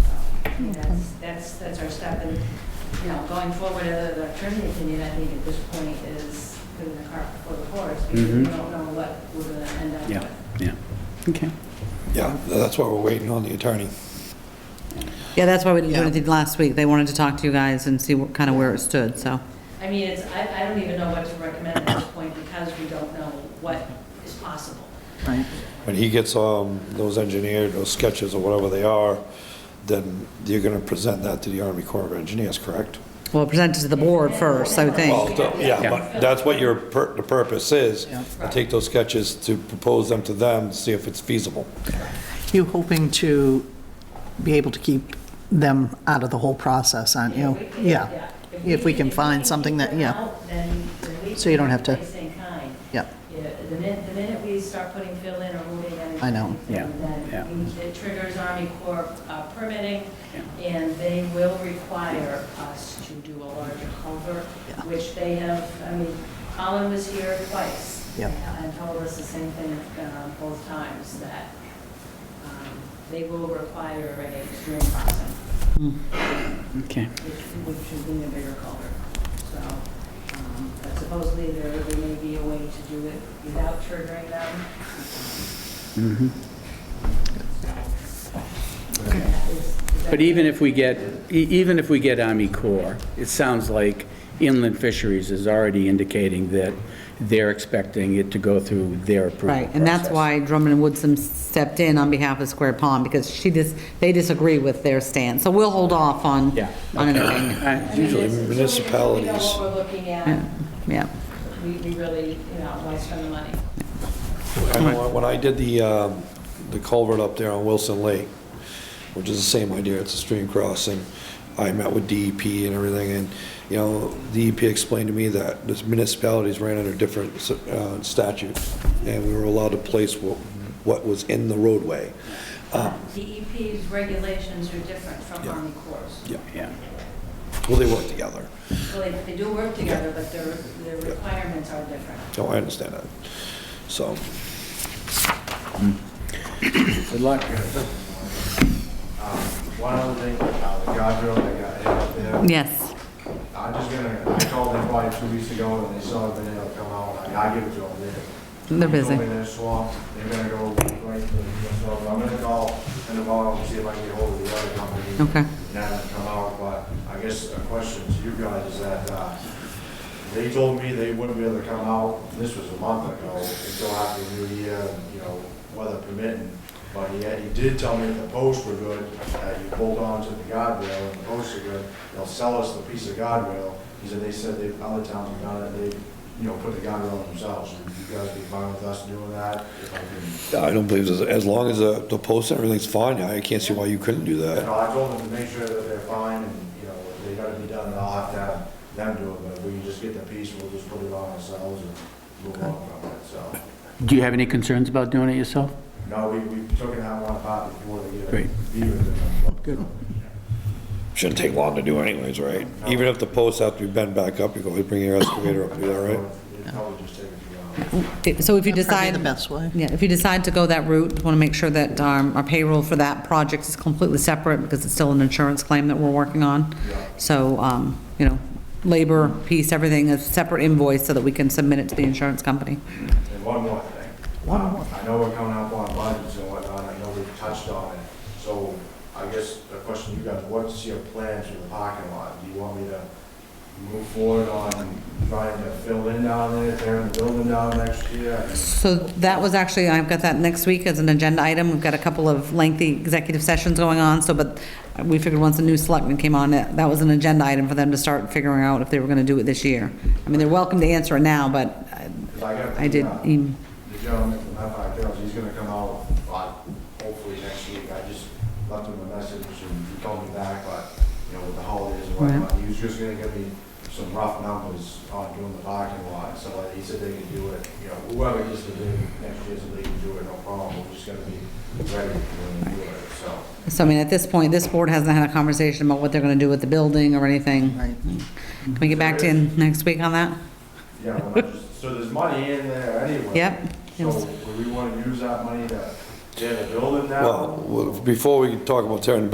think that's, that's, that's our step, and, you know, going forward, uh, the attorney opinion, I think at this point is putting the cart before the horse, because we Mm-hmm. Mhm. don't know what we're gonna end up Yeah, with. yeah. Okay. Yeah, that's why we're waiting on the attorney. Yeah, that's why we didn't do Yeah. anything last week. They wanted to talk to you guys and see what, kind of where it stood, so. I mean, it's, I, I don't even know what to recommend at this point, because we don't know what is possible. Right. When he gets um, those engineered, those sketches or whatever they are, then you're going to present that to the Army Corps of Engineers, correct? Well, present it to the board first, I Well, think. th- Yeah, but that's what your, pur- the purpose is. Take those sketches to propose them to them, see if it's feasible. You hoping to be able to keep them out of the whole process, aren't you? If we- Yeah. If we can find keep something that, them yeah, out, Then, then we. So you don't have to- can stay kind. yeah. Yeah, the minute, the minute we start putting fill in or moving anything. I know. Yeah, yeah. Then we- it triggers Army Corps uh, permitting, and they will require us to do a larger culvert, Yeah. which they have, I mean, Colin was here twice. Yeah. And told us the same thing uh, both times, that um, they will require a stream crossing, Okay. which which should be a bigger culvert. So um, but supposedly there there may be a way to do it without triggering them. Mhm. That is- is that- But even if we get, e- even if we get Army Corps, it sounds like Inland Fisheries is already indicating that they're expecting it to go through their approval Right, and that's process. why Drummond and Woodson stepped in on behalf of Square Pond, because she dis, they disagree with their stance. So we'll hold off on, Yeah. on anything. I- Usually Until we- until We know municipalities- what we're looking at, Yeah, Yeah, we we really, you know, why spend the money? I know When I did the, um, the culvert up there on Wilson Lake, which is the same idea, it's a stream crossing, I met with DEP and everything, and, you know, DEP explained to me that this municipalities ran under different uh, statutes, and we were allowed to place what, what was in the roadway. DEP's E regulations are different from Yeah. Army Corps. Yeah, Yeah, well, they work together, Well, they- they do work together, but their, their requirements are different. so I understand that. So, good luck. Uh, One other thing, uh, the guardrail that got hit up there. yes. I'm just gonna, I called them probably two weeks ago and they still haven't been able to come out. I I give it to them. They- They're busy. They told me they're swamped. They're gonna go right to the, so I'm gonna call in the morning and see if I can get hold of the other company. Okay. And have them come out, but I guess a question to you guys is that, uh, they told me they wouldn't be able to come out, this was a month ago, until after the new year, you know, weather permitting. But he, had- he did tell me that the posts were good, that you hold on to the guardrail and the posts are good, they'll sell us the piece of guardrail. He said, they said they, other towns have done it, they, you know, put the guardrail themselves. Would you guys be fine with us doing that? If I can- I don't believe, as- as long as the the post and everything's fine, I can't see why you couldn't do You that. know, I told them to make sure that they're fine and, you know, if they gotta be done, then I'll have to have them do it. But if we can just get the piece, we'll just put it on ourselves and move on from it, so. Do you have any concerns about doing it yourself? No, we, we took it out one part before uh, they get Great. it. Good. Shouldn't take long to do anyways, right? Even if the posts have to be bent back up, you go, you bring your excavator up, you all right? It'd probably just take a few hours. So if you That'd decide. probably be the best way. Yeah, if you decide to go that route, want to make sure that um, our payroll for that project is completely separate because it's still an insurance claim that we're working on. Yeah. So, um, you know, labor piece, everything is separate invoice so that we can submit it to the insurance company. And one more thing. One more. I know we're coming up on budgets and whatnot, I know we've touched on it. So I guess the question to you guys, what's your plans for the parking lot? Do you want me to move forward on trying to fill in down there, tearing the building down next year? So that was actually, I've got that next week as an agenda item. We've got a couple of lengthy executive sessions going on, so, but we figured once a new selectman came on, that that was an agenda item for them to start figuring out if they were going to do it this year. I mean, they're welcome to answer it now, but uh, 'Cause got I did, the, uh, em- the gentleman from Halifax Girls, he's gonna come out, uh, hopefully next week, I just left him a message and he called me back, but, you know, with the holidays and whatnot, he was just gonna give me some rough numbers on doing the parking lot, so like, he said they can do it, you know, whoever gets to do it next year, so they can do it, no problem, we're just gonna be ready when we do it, so. So I mean, at this point, this board hasn't had a conversation about what they're gonna do with the building or anything. Right. Can we get back to you next week on that? Yeah, well, I just, so there's money in there anyway. Yep. So would we wanna use that money to tear the building down? Well, before we talk about tearing the